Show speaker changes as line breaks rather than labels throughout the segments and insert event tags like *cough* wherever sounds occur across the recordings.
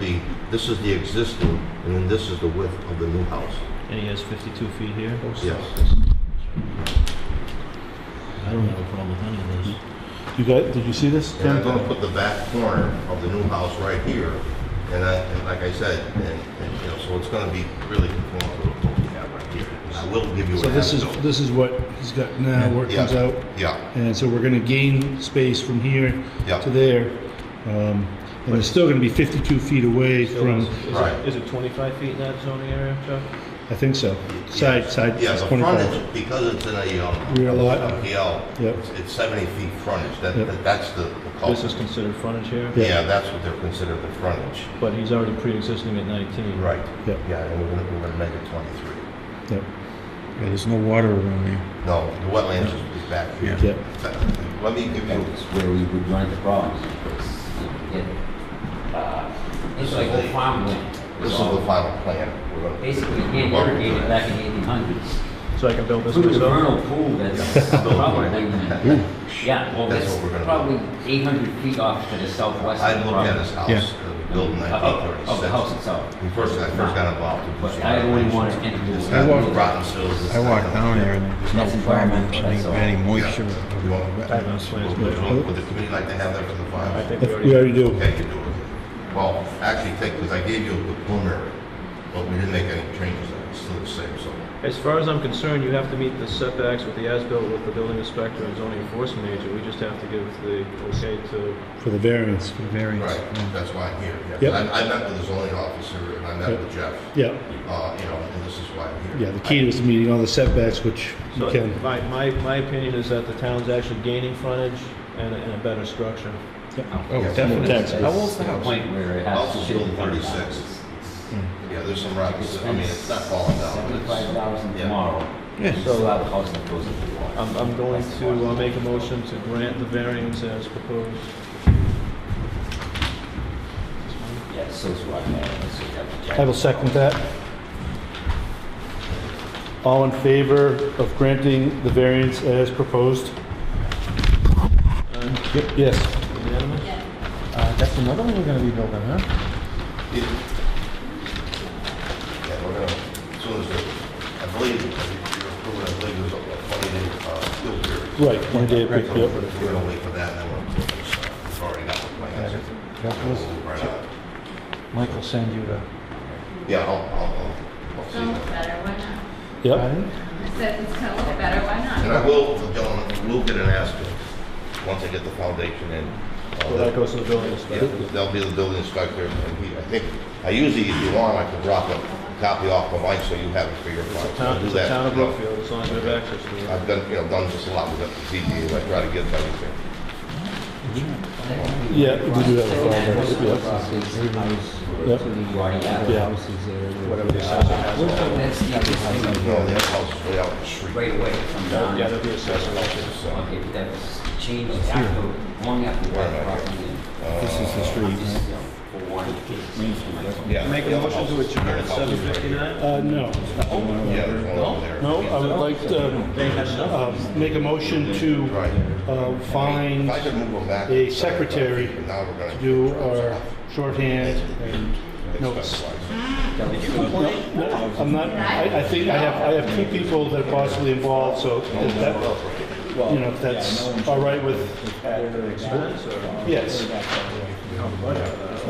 the, this is the existing, and then this is the width of the new house.
And he has 52 feet here.
Yes.
I don't have a problem with any of this.
You guys, did you see this?
And I'm gonna put the back corner of the new house right here, and I, and like I said, and, and, you know, so it's gonna be really conforming to what we have right here. And I will give you
So
an
this is,
as-built.
this is what he's got now, where it comes
Yeah.
out.
Yeah,
And so we're gonna gain space from here
Yeah.
to there. Um, And it's still gonna be 52 feet away from,
Is,
Right.
it, is it 25 feet in that zoning area, Chuck?
I think so, side, side,
yeah, the
25.
frontage, because it's in a, um.
Rear lot.
MPL,
Yep.
it's- it's seventy feet frontage, that,
Yep.
that- that's the, the
This is
culvert.
considered frontage here,
Yeah.
Yeah, that's what they're considering the frontage.
but he's already pre-existing at 19.
Right.
Yep.
Yeah, and we're gonna, we're gonna make it twenty-three.
Yep,
Yeah, there's no water around here.
No, the wetlands is is back here.
yep.
Let me give you,
That's where we would run into problems, because you can get, uh, it's like the farmland.
this is the final plan. We're gonna-
Basically, you can't irrigate it back in the eighteen hundreds.
So I can build this
Through the
myself?
vernal
*laughs*
pool, that's
Yeah.
probably,
Ooh.
yeah, well,
That's
that's
what we're gonna do.
probably eight hundred feet off to the southwest.
I
of the
looked at
property.
his house,
Yeah.
uh, built in
Of- of- Of the house
1936.
itself.
When first, I first got involved. it was-
But I only wanted to enter.
It's
I
got
walked-
rotten soils, it's
I
got-
walked down there and there's
That's
no farm,
environmental,
any,
that's all.
any moisture.
Yeah. You want-
I have those plans,
Would
but
you- would the committee like to have that for the
I
file?
think we
We
already...
already do.
Okay, you do it. Well, actually, take, because I gave you the preliminary, but we didn't make any changes, it's still the same, so.
As far as I'm concerned, you have to meet the setbacks with the as-built with the building inspector and zoning enforcement agent. We just have to give the okay to...
For the variance.
Variance.
Right,
yeah.
that's why I'm here. yeah.
Yep.
I, I met with the zoning officer and I met
Yep.
with Jeff,
Yeah,
uh, you know, and this is why I'm here.
yeah, the key was meeting all the setbacks, which you
So
can.
my, my, my opinion is that the town's actually gaining frontage and a, and a better structure.
Oh, definitely.
How old's the house? Point where it has
House
to
is
fit
built in
in front of the
36.
house.
Yeah, there's some rocks, I mean, it's not falling down. but
Seventy-five
it's-
thousand
Yeah.
tomorrow.
Yeah.
You still have a house that goes into the water.
I'm, I'm going to uh, make a motion to grant the variance as proposed.
Yeah, so it's right there. That's what you have to check.
I will second that. All in favor of granting the variance as proposed?
Uh,
Yes.
Unanimous?
Uh, That's another one we're gonna be building, huh?
Yeah, we're gonna, as soon as, the- I believe, if you're approving, I believe there's a twenty day, uh, appeal period.
Right, one day,
So
yep.
We're gonna wait for that, and then we're, we've already got the plans. We'll move right out.
Mike will send you the.
Yeah, I'll, I'll, I'll- I'll see.
Don't look better, why not?
Yep,
I said it's gonna look better, why not?
And I will, gentlemen, we'll get an asterisk, once I get the foundation in. uh,
So Oh, that goes to the building
Yeah,
inspector.
That'll be the building inspector, and he, I think, I usually, if you want, I could drop a copy off the mic so you have it for your file.
It's a town,
I'll do
it's a
that.
town of Brookfield, as long as we have access to it.
I've done, you know, done just a lot with the ZBA, I try to get everything.
yeah, we do have a variance, yep. Yep. Yeah.
Whatever the assessor has.
That's the other thing.
No, the other house is way out in the street.
Right away from down.
Yeah, that'd be assessor.
So,
Okay, but that was changed after, long after
Where am I
that property.
This is the street.
yeah.
Make a motion to adjourn at seven fifty-nine?
Uh, no.
Yeah, there's one over there.
No, I would like to uh, make a motion to
Right.
uh,
If I could
find,
move them back.
a secretary
Now we're gonna-
do our shorthand and notes. No, I'm not, I, I think I have, I have two people that are possibly involved, so if that, you know, if that's all right with, yes.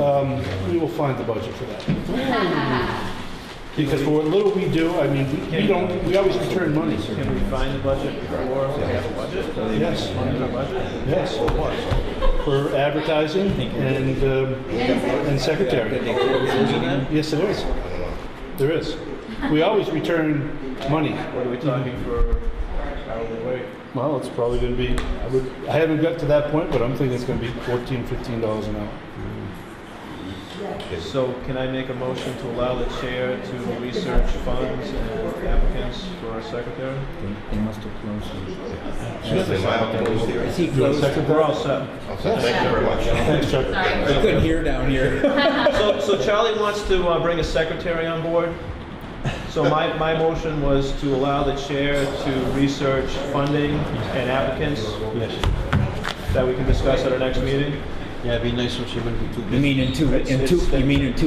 Um, we will find the budget for that. Because for what little we do, I mean, we- we don't, we always return money.
Uh,
Can we find the budget before we have a budget?
Yes, yes. For advertising and, um, and secretary. Yes, there is. There is. We always return money.
What are we
Mm-hmm.
talking for hourly rate?
Well, it's probably gonna be, I would, I haven't got to that point, but I'm thinking it's gonna be fourteen, fifteen dollars an hour.
So can I make a motion to allow the chair to research funds and applicants for our secretary?
They must have closed it.
Actually, my opinion is there.
You want a second?
We're all set.
I'll say Thank you very much.
Thanks, Chuck.
Sorry.
couldn't hear down here.
So, so Charlie wants to uh, bring a secretary on board. So my, my motion was to allow the chair to research funding and applicants that we can discuss at our next meeting.
You mean in two, in two, you mean in two